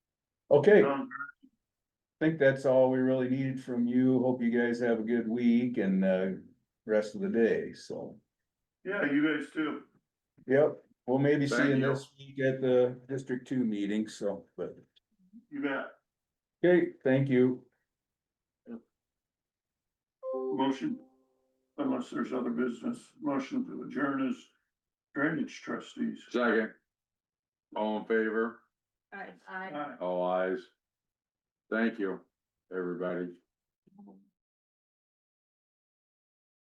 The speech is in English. Okay, I Um, think that's all we really needed from you. Hope you guys have a good week and, uh, rest of the day, so. Yeah, you guys too. Yep, well, maybe see Thank you you. this week at the District Two meeting, so, but, You bet. okay, thank you. Motion, unless there's other business, motion to adjourn as drainage trustees. Second. All in favor? Alright, I. Aye. All ayes. Thank you, everybody.